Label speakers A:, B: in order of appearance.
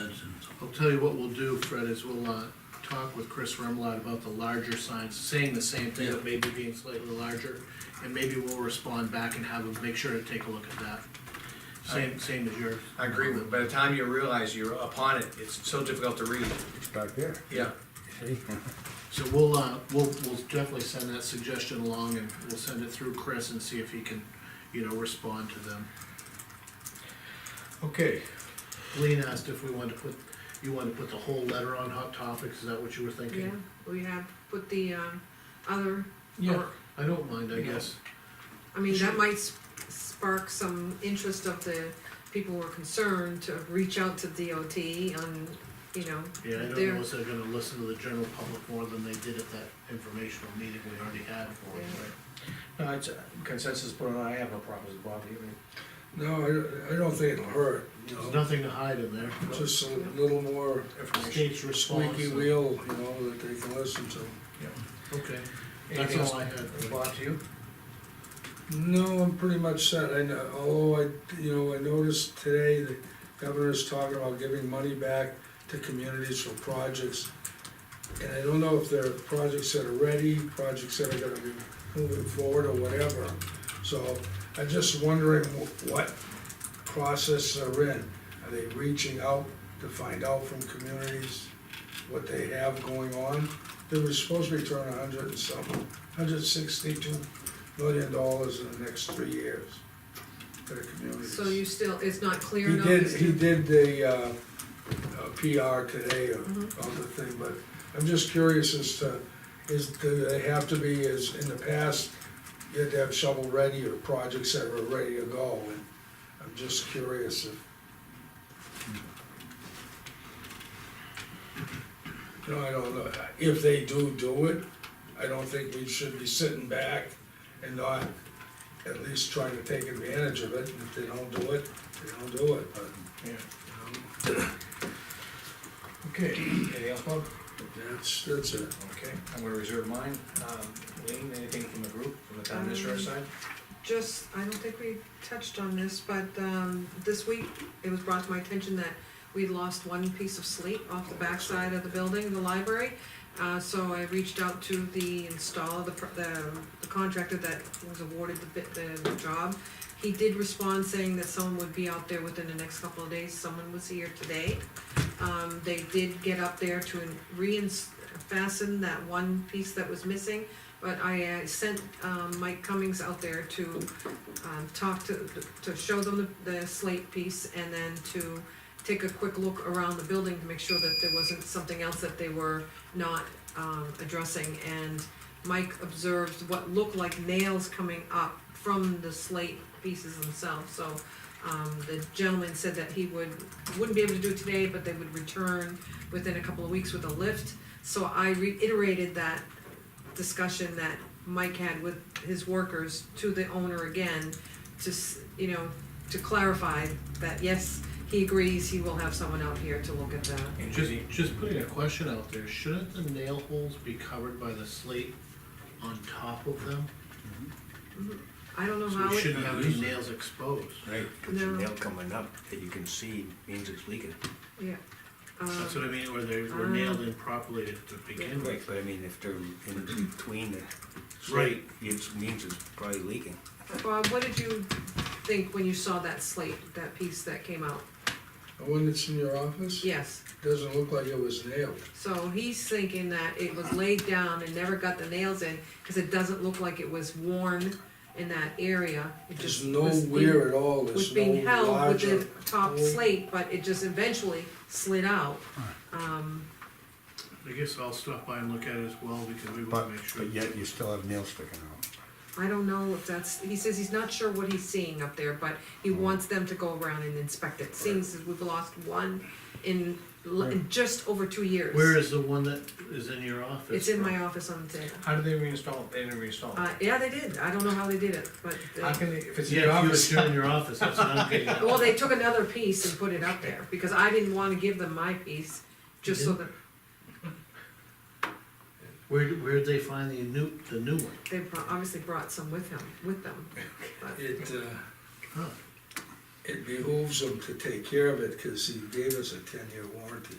A: Attention.
B: I'll tell you what we'll do, Fred, is we'll, uh, talk with Chris Remlott about the larger signs, saying the same thing, but maybe being slightly larger. And maybe we'll respond back and have him make sure to take a look at that. Same, same as yours.
C: I agree with, by the time you realize you're upon it, it's so difficult to read,
D: It's back there,
C: yeah.
D: see?
B: So we'll, uh, we'll, we'll definitely send that suggestion along and we'll send it through Chris and see if he can, you know, respond to them.
C: Okay.
B: Lean asked if we wanted to put, you wanted to put the whole letter on Hot Topics, is that what you were
E: Yeah,
B: thinking?
E: we have put the, um, other,
B: Yeah. I don't mind, I
E: Yeah.
B: guess.
E: I mean, that might s- spark some interest of the people who are concerned to reach out to DOT on, you know.
B: Yeah, I don't
E: their-
B: know if they're gonna listen to the general public more than they did at that informational meeting we already had for it, right?
C: No, it's a consensus, but I have no problems with Bob, you mean?
D: No, I, I don't think it'll hurt, you
B: There's
D: know,
B: nothing to hide in there.
D: Oh. just a little more
C: Information.
B: State's response.
D: squeaky wheel, you know, that they can listen to.
B: Okay, that's
C: Anything else,
B: all I had.
C: Bob, to you?
D: No, I'm pretty much set, I know, although I, you know, I noticed today the governor's talking about giving money back to communities for projects. And I don't know if they're projects that are ready, projects that are gonna be moving forward or whatever. So I'm just wondering wh- what process they're in. Are they reaching out to find out from communities what they have going on? They were supposed to return a hundred and something, hundred sixty-two million dollars in the next three years to the communities.
E: So you still, it's not clear
D: He
E: enough?
D: did,
E: as to-
D: he did the, uh, uh, PR today of,
E: Mhm.
D: of the thing, but I'm just curious as to, is, do they have to be, as in the past, you had to have shovel ready or projects that were ready to go, and I'm just curious if. You know, I don't know, if they do do it, I don't think we should be sitting back and not at least trying to take advantage of it, and if they don't do it, they don't do it, but.
C: Yeah.
D: you know,
C: Okay, anything else, Bob?
D: That's, that's it.
C: Okay, I'm gonna reserve mine. Um, Lean, anything from the group, from the town administrator
E: Um,
C: side?
E: Just, I don't think we touched on this, but, um, this week, it was brought to my attention that we lost one piece of slate off the backside of the building, the library. Uh, so I reached out to the installer, the, pr- the- the contractor that was awarded the bit, the job. He did respond saying that someone would be out there within the next couple of days, someone was here today. Um, they did get up there to reins, fasten that one piece that was missing, but I uh, sent um, Mike Cummings out there to um, talk to, to show them the the slate piece and then to take a quick look around the building to make sure that there wasn't something else that they were not um, addressing. And Mike observed what looked like nails coming up from the slate pieces themselves. So um, the gentleman said that he would, wouldn't be able to do it today, but they would return within a couple of weeks with a lift. So I reiterated that discussion that Mike had with his workers to the owner again, to, s- you know, to clarify that, yes, he agrees, he will have someone out here to look at that.
C: And
B: Just,
C: Judy?
B: just putting a question out there, shouldn't the nail holes be covered by the slate on top of them?
E: I don't know
B: So
E: how
B: we
E: it,
B: shouldn't have any nails exposed.
F: Right, because the
E: No.
F: nail coming up that you can see means it's leaking.
E: yeah.
B: That's
E: Um,
B: what I mean, or they were nailed improperly to begin
F: Right,
B: with.
F: but I mean, if they're in between the.
B: Right.
F: It means it's probably leaking.
E: Bob, what did you think when you saw that slate, that piece that came out?
D: The one that's in your office?
E: Yes,
D: Doesn't look like it was nailed.
E: so he's thinking that it was laid down and never got the nails in, cause it doesn't look like it was worn in that area. It
D: There's
E: just was in-
D: nowhere at all,
E: was
D: there's
E: being
D: no
E: held with
D: larger.
E: the top
D: hole.
E: slate, but it just eventually slid out. Um,
B: I guess I'll stop by and look at it as well, because we
G: But,
B: wanna make sure.
G: but yet you still have nails sticking out.
E: I don't know if that's, he says he's not sure what he's seeing up there, but he
B: Mm.
E: wants them to go around and inspect it, seeing as we've lost one in, l- in just over two years.
B: Where is the one that is in your office?
E: It's in
B: from?
E: my office on the table.
C: How did they reinstall it? They didn't reinstall
E: Uh, yeah, they did, I don't know how they did it, but
C: it. How
E: they,
C: can they, if it's in your
B: Yeah, if
C: office?
B: you were in your office, that's what I'm getting at.
E: well, they took another piece and put it up there, because I didn't wanna give them my piece, just so that
B: Where, where'd they find the new, the new one?
E: they brought- obviously brought some with him, with them. but-
D: It, uh,
B: Huh.
D: it behooves him to take care of it, cause he gave us a ten-year warranty.